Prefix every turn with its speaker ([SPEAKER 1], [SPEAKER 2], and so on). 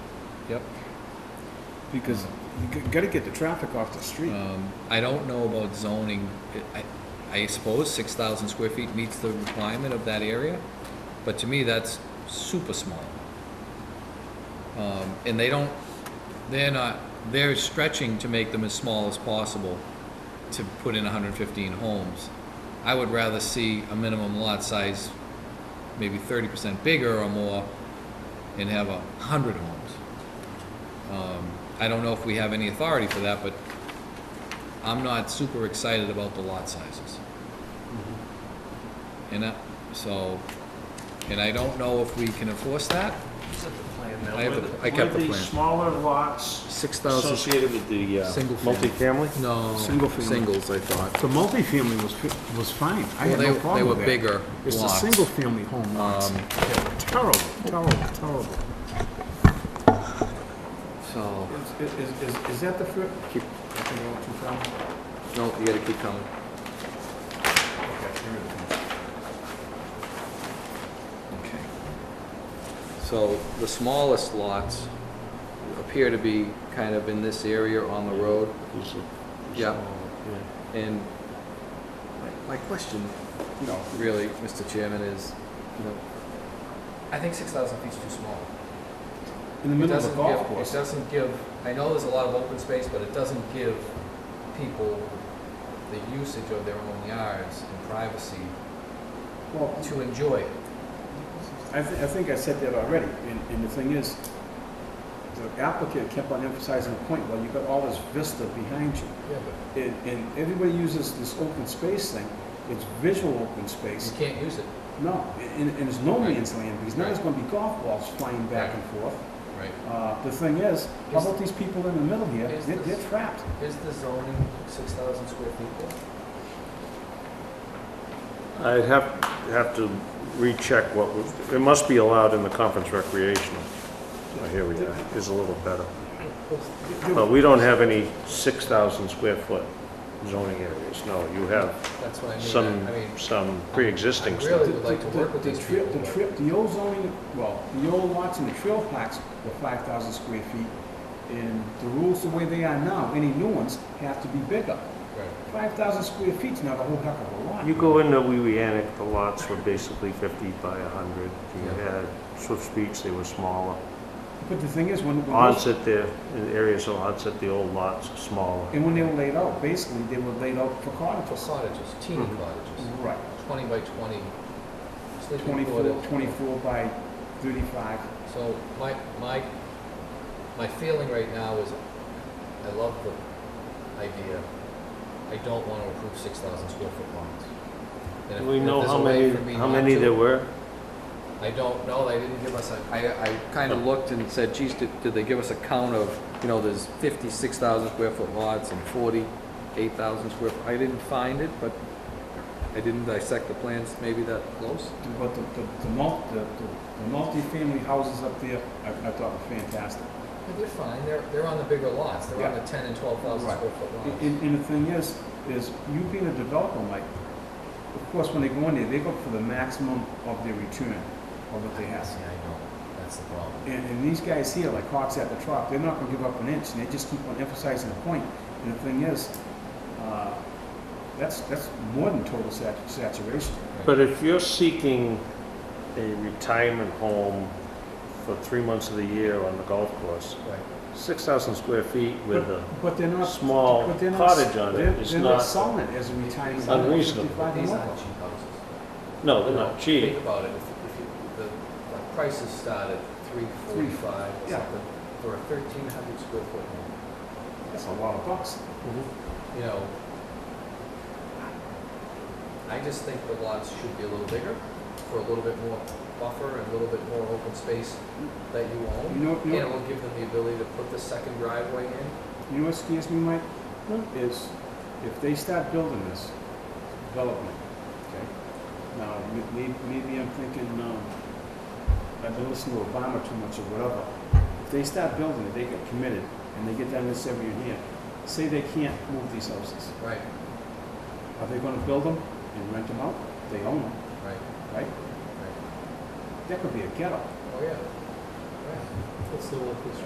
[SPEAKER 1] Yep.
[SPEAKER 2] because you got to get the traffic off the street.
[SPEAKER 1] Um, I don't know about zoning, I, I suppose six thousand square feet meets the requirement of that area, but to me, that's super small. Um, and they don't, they're not, they're stretching to make them as small as possible to put in hundred and fifteen homes. I would rather see a minimum lot size maybe thirty percent bigger or more and have a hundred homes. Um, I don't know if we have any authority for that, but I'm not super excited about the lot sizes. And I, so, and I don't know if we can enforce that.
[SPEAKER 3] Is that the plan
[SPEAKER 1] I have
[SPEAKER 3] now?
[SPEAKER 1] the- I kept the
[SPEAKER 4] Were
[SPEAKER 1] plan.
[SPEAKER 4] the smaller lots
[SPEAKER 1] Six
[SPEAKER 4] associated with the uh,
[SPEAKER 1] Single family.
[SPEAKER 4] multifamily?
[SPEAKER 1] No,
[SPEAKER 2] Single family.
[SPEAKER 1] singles, I thought.
[SPEAKER 2] The multifamily was, fi- was fine. I
[SPEAKER 1] Well,
[SPEAKER 2] had
[SPEAKER 1] they-
[SPEAKER 2] no
[SPEAKER 1] they
[SPEAKER 2] problem
[SPEAKER 1] were
[SPEAKER 2] with that.
[SPEAKER 1] bigger
[SPEAKER 2] It's the
[SPEAKER 1] lots.
[SPEAKER 2] single-family home lots.
[SPEAKER 1] Um,
[SPEAKER 2] Terrible, terrible, terrible.
[SPEAKER 1] So,
[SPEAKER 2] Is, is, is- is that the fir,
[SPEAKER 1] keep,
[SPEAKER 2] I think I went too far.
[SPEAKER 1] no, you gotta keep coming.
[SPEAKER 2] Okay, here it is.
[SPEAKER 1] Okay. So the smallest lots appear to be kind of in this area on the road.
[SPEAKER 4] Is it-
[SPEAKER 1] Yeah.
[SPEAKER 4] yeah.
[SPEAKER 1] And my- my question, you know, really, Mr. Chairman, is, you know, I think six thousand feet's too small.
[SPEAKER 2] In the
[SPEAKER 1] It
[SPEAKER 2] middle of
[SPEAKER 1] doesn't
[SPEAKER 2] the golf
[SPEAKER 1] give, it
[SPEAKER 2] course.
[SPEAKER 1] doesn't give, I know there's a lot of open space, but it doesn't give people the usage of their own yards and privacy
[SPEAKER 2] Well,
[SPEAKER 1] to enjoy it.
[SPEAKER 2] I, thi- I think I said that already, and, and the thing is, the applicant kept on emphasizing the point, well, you've got all this vista behind you.
[SPEAKER 1] Yeah, but.
[SPEAKER 2] And, and everybody uses this open space thing, it's visual open space.
[SPEAKER 1] You can't use it,
[SPEAKER 2] No, and, and it's no
[SPEAKER 1] Right.
[SPEAKER 2] man's land, because now there's gonna be golf balls flying back and forth.
[SPEAKER 1] right?
[SPEAKER 2] Uh, the thing is, how
[SPEAKER 1] Is-
[SPEAKER 2] about these people in the middle here,
[SPEAKER 1] is
[SPEAKER 2] they're,
[SPEAKER 1] this-
[SPEAKER 2] they're trapped.
[SPEAKER 1] Is the zoning six thousand square feet
[SPEAKER 4] I'd have, have to recheck what, was- it must be allowed in the conference recreational. Oh, Here we are, is a little better. But we don't have any 6,000 square foot zoning areas, no. You have
[SPEAKER 1] That's what I mean,
[SPEAKER 4] some,
[SPEAKER 1] I- I mean,
[SPEAKER 4] some pre-existing
[SPEAKER 1] I
[SPEAKER 4] stuff.
[SPEAKER 1] really would like to work with
[SPEAKER 2] The-
[SPEAKER 1] these
[SPEAKER 2] the trail-
[SPEAKER 1] people.
[SPEAKER 2] The trail, the old zoning, well, the old lots and the trail packs were five thousand square feet, and the rules the way they are now, any new ones have to be bigger.
[SPEAKER 1] Right.
[SPEAKER 2] Five thousand square feet's not a whole heck of a lot.
[SPEAKER 4] You go into Wewianick, the lots were basically 50 by 100. You
[SPEAKER 1] Yeah. Mm-hmm.
[SPEAKER 4] had Swift's Beach, they were smaller.
[SPEAKER 2] But the thing is, when, when those-
[SPEAKER 4] Onset there, in areas of onset, the old lots are smaller.
[SPEAKER 2] and when they were laid out, basically, they were laid out for
[SPEAKER 1] For
[SPEAKER 2] cottages.
[SPEAKER 1] cottages, teeny
[SPEAKER 4] Mhm.
[SPEAKER 1] cottages,
[SPEAKER 2] Right,
[SPEAKER 1] twenty by twenty, sleeping
[SPEAKER 2] twenty-four,
[SPEAKER 1] quarters.
[SPEAKER 2] twenty-four by thirty-five.
[SPEAKER 1] So my, my, my feeling right now is, I love the idea. I don't want to approve six thousand square foot lots. And if-
[SPEAKER 4] Do we
[SPEAKER 1] if
[SPEAKER 4] know
[SPEAKER 1] there's
[SPEAKER 4] how
[SPEAKER 1] a way
[SPEAKER 4] many,
[SPEAKER 1] for me
[SPEAKER 4] how
[SPEAKER 1] not
[SPEAKER 4] many
[SPEAKER 1] to-
[SPEAKER 4] there were?
[SPEAKER 1] I don't know, they didn't give us a, I, I kind of looked and said, geez, did, did they give us a count of, you know, there's fifty-six thousand square foot lots and forty-eight thousand square, foot. I didn't find it, but I didn't dissect the plans maybe that close.
[SPEAKER 2] But the, the, the mul, the, the- the multi-family houses up there, I, I thought were fantastic.
[SPEAKER 1] But they're fine, they're, they're on the bigger lots, they're on
[SPEAKER 2] Yeah.
[SPEAKER 1] the ten and twelve thousand
[SPEAKER 2] Right.
[SPEAKER 1] square foot lots.
[SPEAKER 2] And, and the thing is, is you being a developer, Mike, of course, when they go in there, they look for the maximum of their return of what they have.
[SPEAKER 1] Yeah, I know, that's the problem.
[SPEAKER 2] And, and these guys here, like hawks at the trough, they're not gonna give up an inch, and they just keep on emphasizing the point. And the thing is, uh, that's, that's more than total sat- saturation.
[SPEAKER 4] But if you're seeking a retirement home for three months of the year on the golf course,
[SPEAKER 1] Right.
[SPEAKER 4] 6,000 square feet with a
[SPEAKER 2] But they're not,
[SPEAKER 4] small
[SPEAKER 2] but they're not.
[SPEAKER 4] cottage on
[SPEAKER 2] they're-
[SPEAKER 4] it is
[SPEAKER 2] They're not
[SPEAKER 4] not,
[SPEAKER 2] selling it as a retirement. home,
[SPEAKER 4] unreasonable.
[SPEAKER 2] 55 and
[SPEAKER 1] These
[SPEAKER 2] over.
[SPEAKER 1] aren't cheap houses.
[SPEAKER 4] no, they're not cheap.
[SPEAKER 1] Think about it, if, if you, the, the prices start at three forty-five or
[SPEAKER 2] Yeah.
[SPEAKER 1] something, for a thirteen hundred square foot home,
[SPEAKER 2] That's a lot of bucks.
[SPEAKER 4] Mm-hmm.
[SPEAKER 1] you know. I just think the lots should be a little bigger, for a little bit more buffer and a little bit more open space that you
[SPEAKER 2] You
[SPEAKER 1] own.
[SPEAKER 2] know,
[SPEAKER 1] And
[SPEAKER 2] you know.
[SPEAKER 1] it will give them the ability to put the second driveway in.
[SPEAKER 2] You know what scares me, Mike? Is if they start building this development, okay? Now, m- may- maybe I'm thinking, um, I've been listening to Obama too much or whatever. If they start building it, they get committed, and they get down this every year. Say they can't move these houses.
[SPEAKER 1] Right,
[SPEAKER 2] Are they gonna build them and rent them out? They own them,
[SPEAKER 1] right,
[SPEAKER 2] right?
[SPEAKER 1] right.
[SPEAKER 2] That could be a ghetto.
[SPEAKER 1] Oh, yeah. Right. It's the one piece